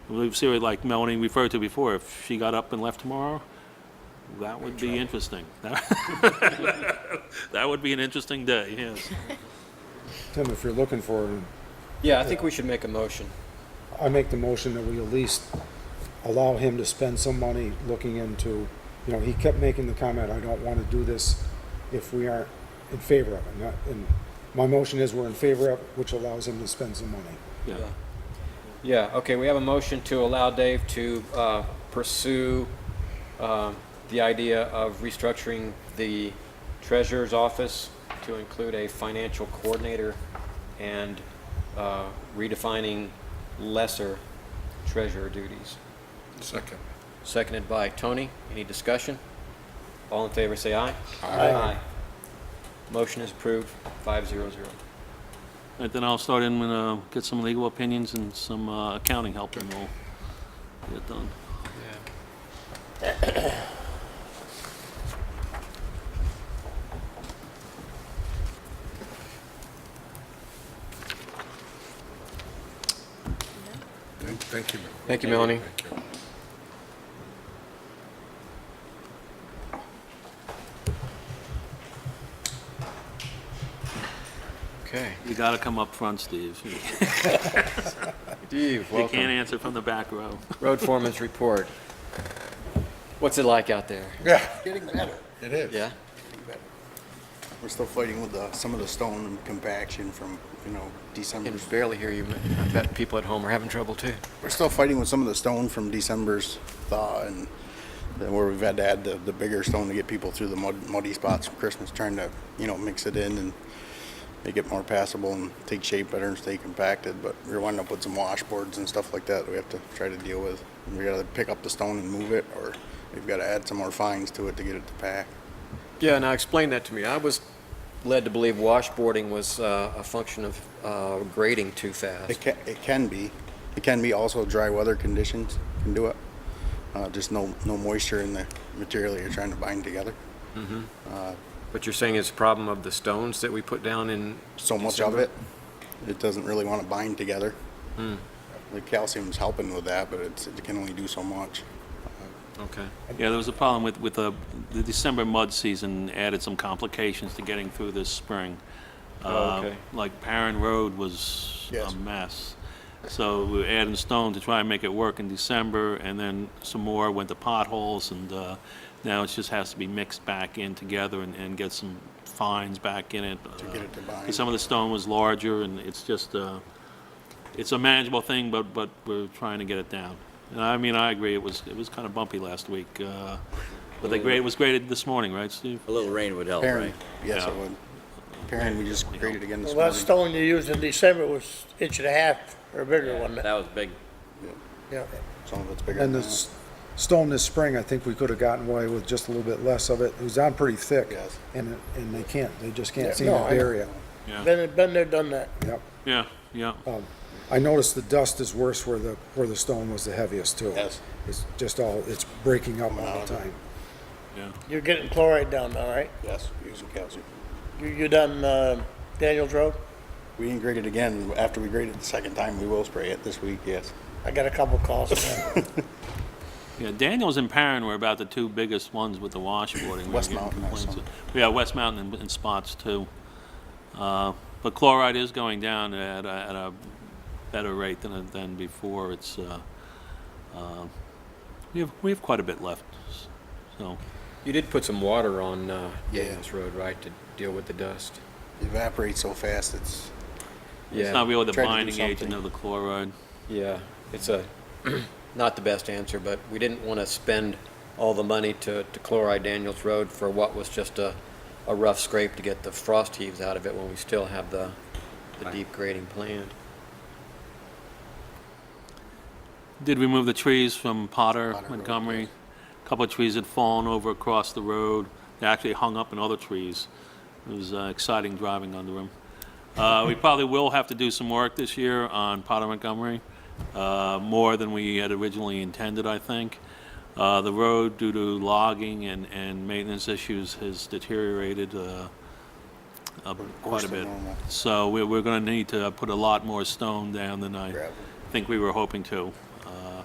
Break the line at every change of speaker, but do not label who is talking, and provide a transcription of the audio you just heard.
We've seen, it like Melanie referred to before, if she got up and left tomorrow, that would be interesting. That would be an interesting day, yes.
Tim, if you're looking for it,
Yeah, I think we should make a motion.
I make the motion that we at least allow him to spend some money looking into, you know, he kept making the comment, I don't want to do this if we aren't in favor of it. Not- And my motion is we're in favor of, it, which allows him to spend some money.
Yeah.
Yeah, okay, we have a motion to allow Dave to uh, pursue um, the idea of restructuring the treasurer's office to include a financial coordinator and uh, redefining lesser treasurer duties.
Second.
Seconded by Tony. Any discussion? All in favor, say aye.
Aye.
Motion is approved, five zero zero.
And then I'll start in and uh, get some legal opinions and some uh, accounting help, and we'll get it done.
Thank thank you. Mel.
Thank you, Melanie.
Thank you.
Okay.
You gotta come up front, Steve. You
Steve,
can't
welcome.
answer from the back row.
Road foreman's report. What's it like out there?
Yeah,
Getting better.
it is.
Yeah?
Getting better. We're still fighting with the, some of the stone and compaction from, you know,
Can
December's.
barely hear you. I bet people at home are having trouble too.
We're still fighting with some of the stone from December's thaw and then where we've had to add the, the bigger stone to get people through the mud, muddy spots from Christmas, trying to, you know, mix it in and make it more passable and take shape better and stay compacted. But we're winding up with some washboards and stuff like that we have to try to deal with. We gotta pick up the stone and move it or we've gotta add some more fines to it to get it to pack.
Yeah, now explain that to me. I was led to believe washboarding was uh, a function of uh, grading too
It
fast.
can, it can be. It can be also dry weather conditions can do it. Uh, just no, no moisture in the material that you're trying to bind together.
But you're saying it's a problem of the stones that we put down in,
So much of it, it doesn't really want to bind together. The calcium's helping with that, but it's, it can only do so much.
okay.
Yeah, there was a problem with, with uh, the December mud season added some complications to getting through this spring. Uh,
okay.
Like Perrin Road was a
Yes.
mess. So we were adding stone to try and make it work in December, and then some more went to potholes, and uh, now it just has to be mixed back in together and, and get some fines back in it. To
get it to bind.
Some of the stone was larger, and it's just, uh, it's a manageable thing, but, but we're trying to get it down. And I mean, I agree, it was, it was kind of bumpy last week, uh, but the grade, it was graded this morning, right, Steve?
A little rain would help,
Parent,
right?
yes, it
Yeah.
would. Parent, we just graded again this
Well, that
morning.
stone you used in December was inch and a half or bigger, wasn't it?
That was big.
Yeah.
Some of it's bigger than
And the
that.
s- stone this spring, I think we could have gotten away with just a little bit less of it. It was on pretty thick.
Yes.
And, it- and they can't, they just can't
Yeah,
seem
no,
to
I know.
bury it.
Yeah,
Been, been there, done that.
Yep.
yeah, yeah.
I noticed the dust is worse where the, where the stone was the heaviest too.
Yes.
It's just all, it's breaking up all the time.
You're getting chloride down, all right?
Yes, using calcium.
You, you done, uh, Daniels Road?
We didn't grade it again. After we graded the second time, we will spray it this week, yes.
I got a couple calls.
Yeah, Daniels and Perrin were about the two biggest ones with the washboarding. We were
West
getting
Mountain also.
complaints. Yeah, West Mountain and- and spots too. Uh, But chloride is going down at a, at a better rate than, than before. It's, uh, uh, we have, we have quite a bit left, so.
You did put some water on uh,
Yeah.
Daniels Road, right, to deal with the dust?
Evaporates so fast, it's
It's not really the
Tried to do
binding agent
something.
of the chloride.
Yeah, it's a, not the best answer, but we didn't want to spend all the money to, to chloride Daniels Road for what was just a, a rough scrape to get the frost heaves out of it when we still have the, the deep grading planned.
Did remove the trees from Potter,
Potter Road,
Montgomery. A Couple of trees had fallen over across the road. They actually hung up in other trees. It was uh, exciting driving under them. Uh, we probably will have to do some work this year on Potter Montgomery, uh, more than we had originally intended, I think. Uh, the road, due to logging and, and maintenance issues, has deteriorated, uh, uh, quite a
than
bit.
normal.
So we're, we're gonna need to put a lot more stone down than I
Gravel.
think we were hoping to. Uh,